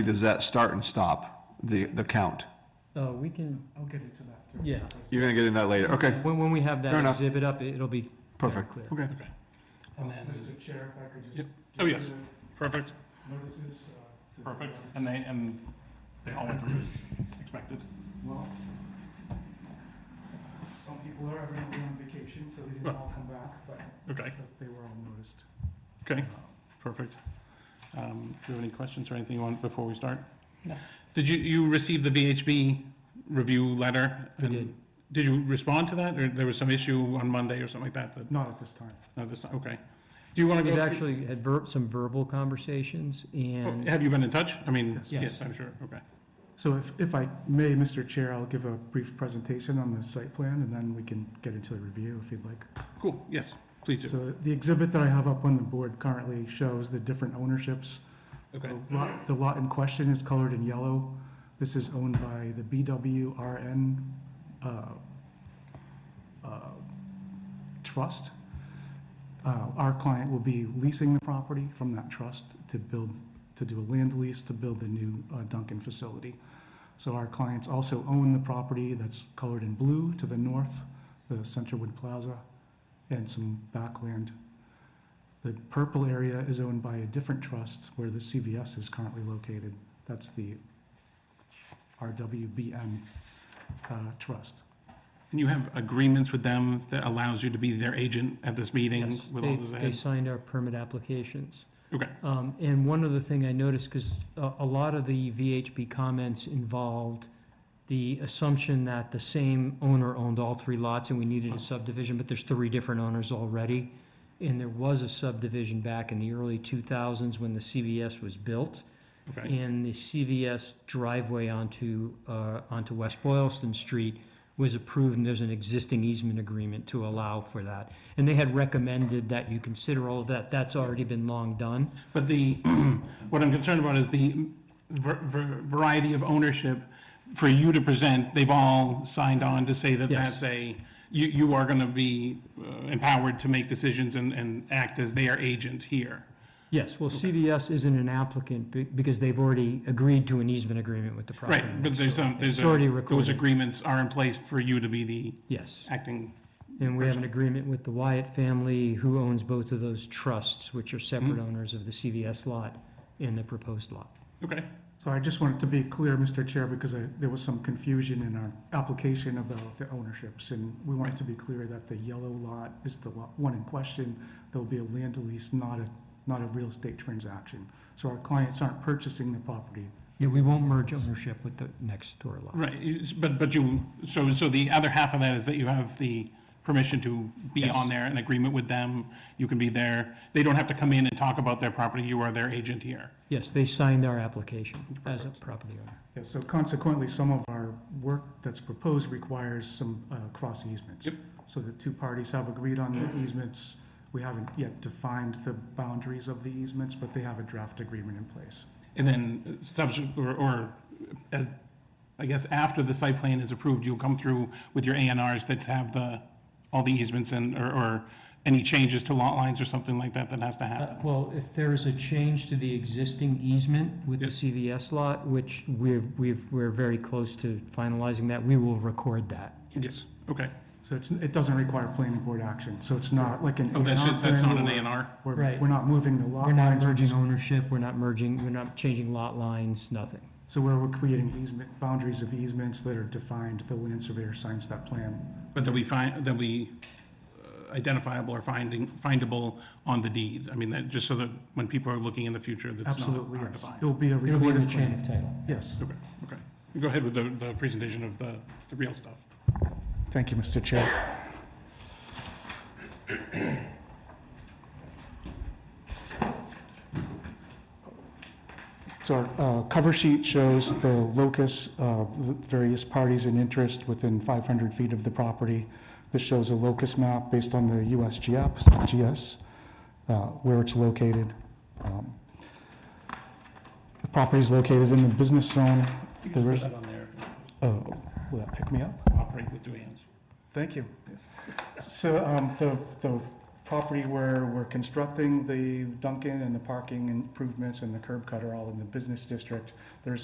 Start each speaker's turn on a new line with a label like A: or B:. A: does that start and stop, the, the count?
B: Oh, we can,
C: I'll get into that too.
B: yeah.
A: You're gonna get into that later, okay,
B: When, when we have
A: Fair
B: that
A: enough.
B: exhibit up, it'll be very
A: perfect,
B: clear.
A: okay.
C: Um,
D: And then-
C: Mr. Chair, if I could just. give
D: Yep. Oh,
C: you
D: yes.
C: the
D: Perfect,
C: Notices. uh, to the-
D: perfect. And they, and they all went through as expected.
C: Well, some people are everyone on vacation, so they didn't all come back, but
D: Okay,
C: but they were all noticed. Uh,
D: okay, perfect. Um, Do you have any questions or anything you want before we start?
B: No.
D: Did you, you receive the VHB review letter?
B: We
D: And
B: did.
D: Did you respond to that, or there was some issue on Monday or something like that, that,
C: Not at this time.
D: no, this, okay. Do you want to go?
B: We've
D: through-
B: actually had ver, some verbal conversations
D: Oh,
B: and,
D: Have you been in touch? I mean,
C: Yes.
D: yes, I'm sure, okay.
C: So if, if I may, Mr. Chair, I'll give a brief presentation on the site plan, and then we can get into the review if you'd like.
D: Cool, yes, please do.
C: So the exhibit that I have up on the board currently shows the different ownerships
D: Okay,
C: The lot- The lot in question is colored in yellow. This is owned by the BWRN uh, uh, Trust. Uh, Our client will be leasing the property from that trust to build, to do a land lease to build the new uh, Duncan facility. So our clients also own the property that's colored in blue to the north, the Centerwood Plaza, and some backland the purple area is owned by a different trust where the CVS is currently located. That's the RWBN uh, trust.
D: and you have agreements with them that allows you to be their agent at this meeting
B: yes,
D: with all
B: they,
D: this
B: they
D: ahead?
B: signed our permit applications.
D: Okay,
B: Um, and one other thing I noticed, because a, a lot of the VHB comments involved the assumption that the same owner owned all three lots and we needed a subdivision, but there's three different owners already. And there was a subdivision back in the early two thousands when the CVS was built.
D: okay,
B: And the CVS driveway onto, uh, onto West Boylston Street was approved, and there's an existing easement agreement to allow for that. And they had recommended that you consider all of that, that's already been long done.
D: but the, what I'm concerned about is the ver- ver- variety of ownership for you to present, they've all signed on to say that
B: Yes.
D: that's a, you, you are gonna be uh, empowered to make decisions and, and act as their agent here.
B: Yes, well, CVS isn't an applicant be- because they've already agreed to an easement agreement with the property.
D: Right, but there's, some- there's,
B: It's already
D: a- those
B: recorded.
D: agreements are in place for you to be the
B: Yes,
D: acting,
B: and we have an agreement with the Wyatt family, who owns both of those trusts, which are separate
D: Mm-hmm.
B: owners of the CVS lot and the proposed lot.
D: okay,
C: So I just wanted to be clear, Mr. Chair, because I- there was some confusion in our application about the ownerships. And we wanted to be clear that the yellow lot is the lo- one in question. There'll be a land lease, not a, not a real estate transaction. So our clients aren't purchasing the property.
B: Yeah, we won't merge ownership with the next door lot.
D: right, it's- but, but you, so, so the other half of that is that you have the permission to be
B: Yes.
D: on there, an agreement with them, you can be there, they don't have to come in and talk about their property, you are their agent here.
B: Yes, they signed our application as a property owner.
C: Yeah, so consequently, some of our work that's proposed requires some uh, cross easements.
D: Yep. Mm-hmm.
C: So the two parties have agreed on the easements. We haven't yet defined the boundaries of the easements, but they have a draft agreement in place.
D: And then subsequent, or, or, uh, I guess after the site plan is approved, you'll come through with your A and Rs that have the, all the easements and, or, or any changes to lot lines or something like that that has to
B: Uh,
D: happen.
B: Well, if there is a change to the existing easement with the
D: Yep.
B: CVS lot, which we've, we've, we're very close to finalizing that, we will record that.
D: Yes, okay.
C: So it's, it doesn't require planning board action, so it's not like an.
D: Oh, that's, it, that's not an A
C: plan
D: and R?
C: where We're,
B: Right.
C: we're not moving the lot
B: We're not
C: lines, we're
B: merging
C: just,
B: ownership, we're not merging, we're not changing lot lines, nothing.
C: so where we're creating easement, boundaries of easements that are defined, the land surveyor signs that plan.
D: But that we find, that we uh, identifiable or finding, findable on the deed. I mean, that, just so that when people are looking in the future, that's not
C: Absolutely,
D: hard to
C: yes.
D: find.
C: It'll be a
B: It'll be in
C: recorded
B: the chain
C: plan.
B: of title.
C: Yes,
D: Okay, okay. Go ahead with the, the presentation of the, the real stuff.
C: thank you, Mr. Chair. So our uh, cover sheet shows the locus of the various parties in interest within 500 feet of the property. This shows a locus map based on the USGS, GS, uh, where it's located. Um, The property is located in the business zone.
D: You
C: can There put
D: can put
C: is-
D: that on there,
C: Oh, will that pick me up?
D: operate with two hands.
C: Thank you. So um, the, the property where we're constructing the Dunkin' and the parking improvements and the curb cut are all in the business district. There's